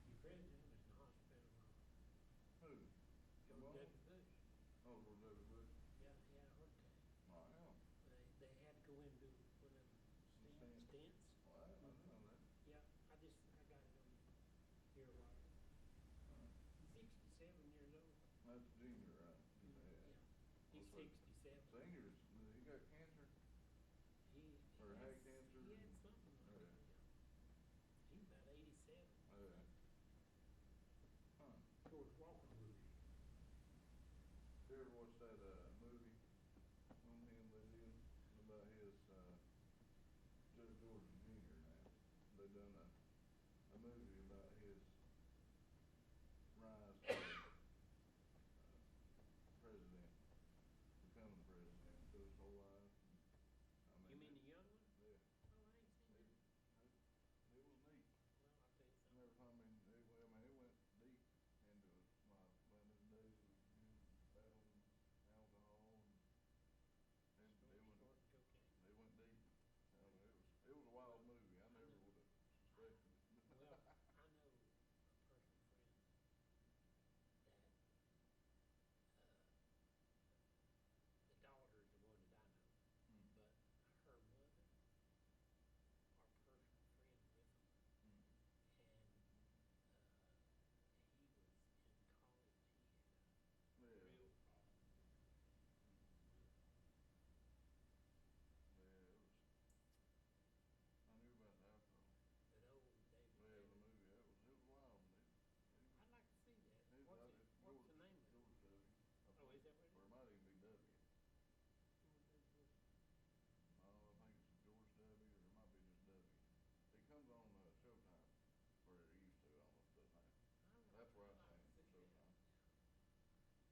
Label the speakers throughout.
Speaker 1: Oh, Uh, watched that, uh, movie on him they did about his, uh, Judge Jordan Junior now. They done a, a movie about his rise to, uh, president, becoming president, so his whole life. I
Speaker 2: You mean
Speaker 1: it-
Speaker 2: the young one?
Speaker 1: Yeah,
Speaker 2: Oh, I ain't seen
Speaker 1: it, it,
Speaker 2: that.
Speaker 1: it was neat.
Speaker 2: Well, I'll
Speaker 1: Never, I mean, it, went- I mean, it went deep into it, like,
Speaker 2: tell you something.
Speaker 1: when his days was, you know, battling alcohol and, and it went,
Speaker 2: Snorting cocaine.
Speaker 1: it went deep. I mean, it was, it was a wild movie, I never would've suspected it.
Speaker 2: Well, I know a personal friend that, uh, the daughter is the
Speaker 1: Mm,
Speaker 2: one that I know, but uh, her mother are personal friends with him.
Speaker 1: mm.
Speaker 2: And, uh, he was in college, he had a
Speaker 1: Yeah,
Speaker 2: real problem.
Speaker 1: yeah, it was, I knew about the alcohol,
Speaker 2: But old David
Speaker 1: yeah, the movie, it
Speaker 2: Bannon,
Speaker 1: was, it was wild, dude. It was-
Speaker 2: I'd like to see
Speaker 1: it
Speaker 2: that.
Speaker 1: was
Speaker 2: What's
Speaker 1: out at George-
Speaker 2: it, what's the name of it?
Speaker 1: George W. I
Speaker 2: Oh, is
Speaker 1: think.
Speaker 2: that what it
Speaker 1: Or it
Speaker 2: is?
Speaker 1: might even be W.
Speaker 2: Well,
Speaker 1: Oh, I think it's George W. or it might be just W. It comes on uh, Showtime, or it used to, I don't know if it's now. That's where I
Speaker 2: Uh,
Speaker 1: seen it, Showtime.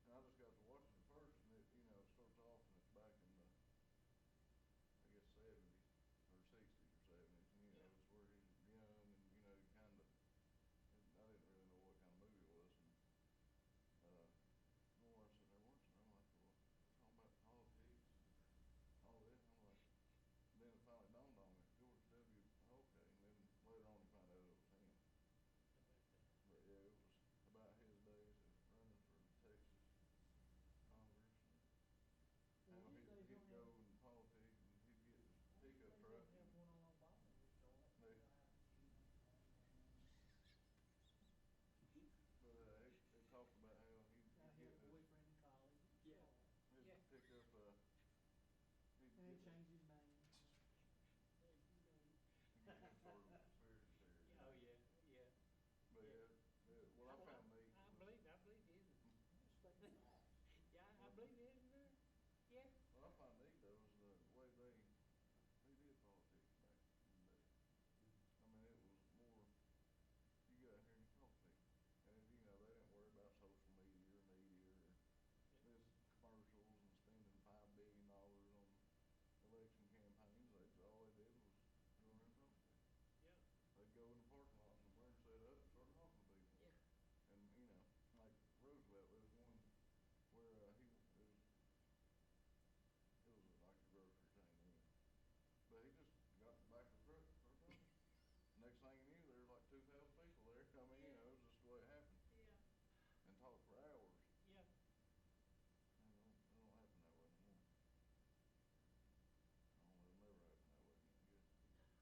Speaker 1: And I just got to watching it first, and it, you know, it starts off and it's back in the, I guess, seventies, or sixties or seventies, and you know,
Speaker 2: Yeah.
Speaker 1: it's where he's young and, you know, kind of, I didn't really know what kind of movie it was, and, uh, more I sit there watching, I'm like, well, it's all about politics, and all this, I'm like, then it finally dawned on me, George W. Okay, and then later on you find out it was him. But yeah, it was about his days of running for Texas Congress and how
Speaker 3: Well,
Speaker 1: he'd,
Speaker 3: these days
Speaker 1: he'd
Speaker 3: don't
Speaker 1: go
Speaker 3: have-
Speaker 1: and politics and he'd get his
Speaker 3: well, these
Speaker 1: pickup
Speaker 3: days
Speaker 1: truck.
Speaker 3: don't have
Speaker 1: and-
Speaker 3: one on Boston, we sold it.
Speaker 1: They- But uh, they, they talked about how he'd
Speaker 3: I
Speaker 1: get
Speaker 3: had a
Speaker 1: his,
Speaker 3: boyfriend in college. we
Speaker 2: Yeah.
Speaker 3: sold it.
Speaker 1: his
Speaker 2: Yeah.
Speaker 1: pickup, uh, he'd
Speaker 3: And he
Speaker 1: get his,
Speaker 3: changed his
Speaker 1: he'd
Speaker 3: name.
Speaker 1: get his sort of spirit there. But yeah,
Speaker 2: Oh, yeah, yeah.
Speaker 1: yeah, well, uh, I
Speaker 2: Well,
Speaker 1: found neat. was-
Speaker 2: I believe, I believe it is. Yeah, I
Speaker 3: Just like a flash.
Speaker 2: believe it is there. Yeah.
Speaker 1: What I find neat though is the way they, they did politics back in the day. I mean, it was more, you got here and you talk to people. And, you know, they didn't worry about social media or media or this commercials and spending five billion dollars on election campaigns. They, all they did was go around and talk to people.
Speaker 2: Yeah,
Speaker 1: They'd go in the parking lot and learn to set up and start talking to people.
Speaker 2: yeah.
Speaker 1: And, you know, like Roosevelt, there was one where, uh, he, it was, it was like a grocery chain, anyway. But he just got in the back of the truck, truck driver. Next thing you knew, there was like two thousand people there, I mean, you know, it was just the way it happened,
Speaker 2: Yeah.
Speaker 1: and talked for hours,
Speaker 2: Yeah.
Speaker 1: and it don't, it don't happen that way anymore. I don't, it'll never happen that way again, I guess,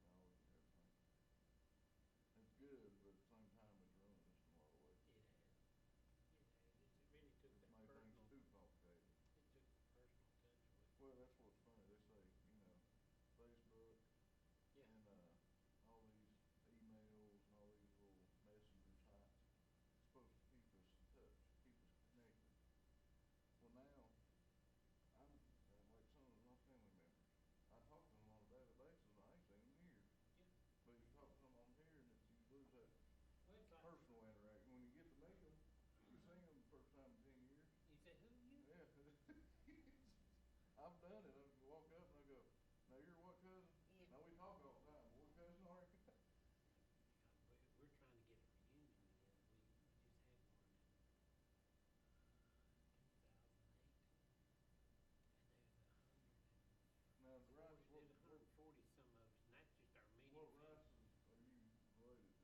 Speaker 1: technology and everything. It's good, but at the same time, it's ruinous in a lot of ways.
Speaker 2: It has. It has. It really took
Speaker 1: It's made things
Speaker 2: that personal,
Speaker 1: too complicated.
Speaker 2: it took the personal touch away.
Speaker 1: Well, that's what's funny, they say, you know, Facebook
Speaker 2: Yeah.
Speaker 1: and, uh, all these emails and all these little messenger sites, it's supposed to keep us in touch, keep us connected. Well, now, I'm, uh, like some of my family members, I talk to them on a daily basis, and I ain't seen them here.
Speaker 2: Yeah.
Speaker 1: But you talk to them on here, and it's, you lose that
Speaker 2: Well, it's like,
Speaker 1: personal interaction, when you get to meet them, you see them the first time in ten years,
Speaker 2: you said, who you?
Speaker 1: yeah. I've done it,